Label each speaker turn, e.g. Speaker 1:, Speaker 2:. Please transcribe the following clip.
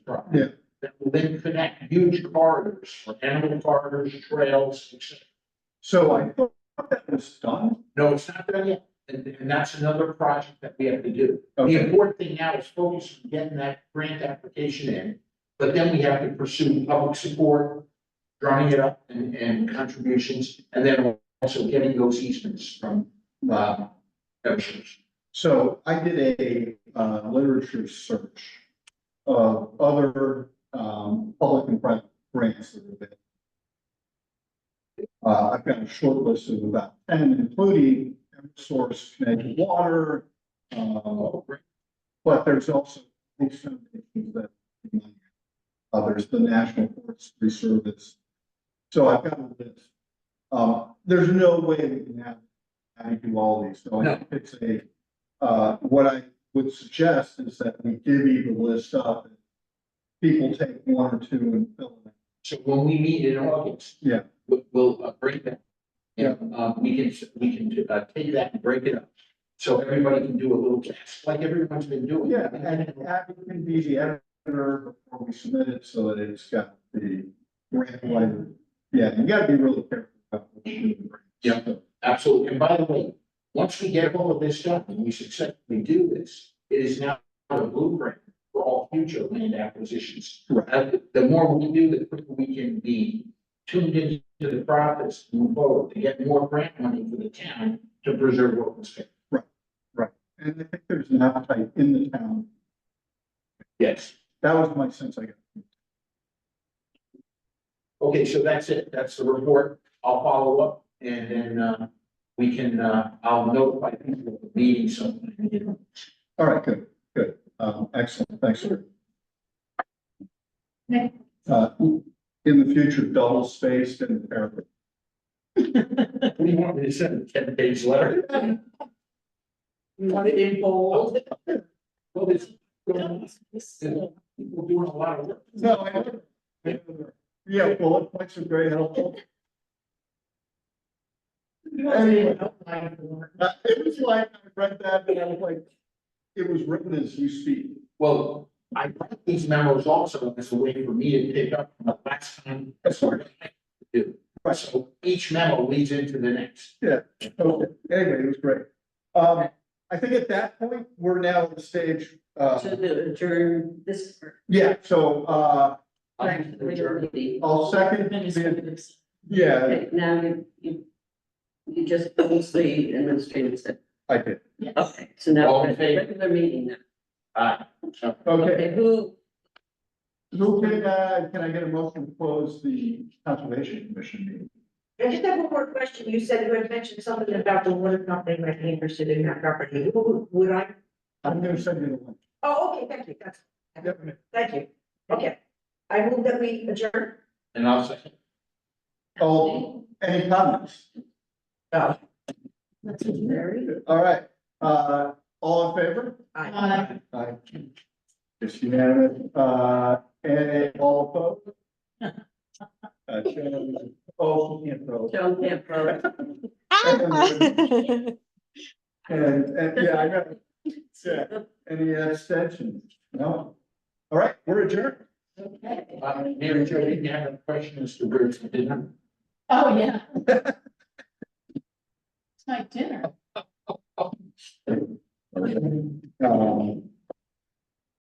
Speaker 1: Yeah.
Speaker 2: That will then connect huge corridors for animal corridors, trails, etc.
Speaker 1: So I thought that was done.
Speaker 2: No, it's not done yet, and, and that's another project that we have to do. The
Speaker 1: Okay.
Speaker 2: important thing now is focus on getting that grant application in, but then we have to pursue public support, drumming it up and, and contributions, and then also getting those easements from, uh, Eversource.
Speaker 1: So I did a uh, literature search of other um, public and private grants that are available. Uh, I've got a short list of about ten, including Source Connecticut Water. uh, But there's also some that uh, there's the National Forestry Service. So I've got a list. Um, There's no way we can have, have you do all these. So I
Speaker 2: No.
Speaker 1: think it's a uh, what I would suggest is that we divvy the list up. and People take one or two and fill it.
Speaker 2: So when we meet in August.
Speaker 1: Yeah.
Speaker 2: We'll, we'll uh, break that. And, uh, we can, we can, uh, take that and break it up. So everybody can do a little test, like everyone's been doing.
Speaker 1: Yeah, and Abby can be the editor before we submit it, so that it's got the grant writer. Yeah, you gotta be really careful about. what you do.
Speaker 2: Yeah. Absolutely. And by the way, once we get all of this done and we successfully do this, it is now a blueprint for all future land acquisitions.
Speaker 1: Right.
Speaker 2: And the more we do, the quicker we can be tuned into the process, move forward, to get more grant money for the town to preserve open space.
Speaker 1: And I think there's an appetite in the town.
Speaker 2: Yes.
Speaker 1: That was my sense, I got.
Speaker 2: Okay, so that's it. That's the report. I'll follow up and then, uh, we can, uh, I'll notify people of the meeting sometime. you know.
Speaker 1: All right, good, good. Um, excellent, thanks, sir.
Speaker 3: Okay.
Speaker 1: Uh, in the future, double spaced and paragraph.
Speaker 2: What do you want me to send? A ten page letter?
Speaker 3: You want it in bold?
Speaker 2: Well, there's, people doing a lot of work.
Speaker 1: No, I don't. Yeah, bullet points are very helpful. Anyway, uh, it was like, I read that, and I was like, it was written as you speak.
Speaker 2: Well, I write these memos also as a way for me to pick up from the last time.
Speaker 1: That's right.
Speaker 2: Do. So each memo leads into the next.
Speaker 1: Okay, Anyway, it was great. Um, I think at that point, we're now at the stage, uh,
Speaker 3: To adjourn this. part.
Speaker 1: yeah, so, uh,
Speaker 2: I'll do the majority.
Speaker 1: I'll second, the-
Speaker 3: Administrative.
Speaker 1: yeah,
Speaker 4: Okay, now you, you, you just close the administrative step.
Speaker 1: I did.
Speaker 4: Okay, so now
Speaker 2: All
Speaker 4: we're
Speaker 2: in
Speaker 4: at the
Speaker 2: favor?
Speaker 4: regular meeting now.
Speaker 2: Aye. Uh, So,
Speaker 1: Okay,
Speaker 4: Okay, who,
Speaker 1: who can, uh, can I get a motion to close the conservation commission meeting?
Speaker 5: I just have one more question. You said you had mentioned something about the water company might be interested in that property. Who Would I?
Speaker 1: I'm gonna send you the link.
Speaker 5: Oh, okay, thank you. That's,
Speaker 1: Yep.
Speaker 5: thank you. Okay. I move that we adjourn.
Speaker 2: And I'll second.
Speaker 1: Oh, any comments?
Speaker 4: that's Mary?
Speaker 1: All right, uh, all in favor?
Speaker 5: Aye.
Speaker 3: Uh,
Speaker 1: Aye. It's unanimous, uh, and all opposed? Uh, Oh, you can't vote.
Speaker 4: Joan Camp Rose.
Speaker 1: And, and, yeah, I got, yeah, any abstentions? No? All right, we're adjourned.
Speaker 2: Uh, Mary Jo, did you have a question as to where it's dinner?
Speaker 3: Oh, yeah. It's my dinner.
Speaker 1: Um,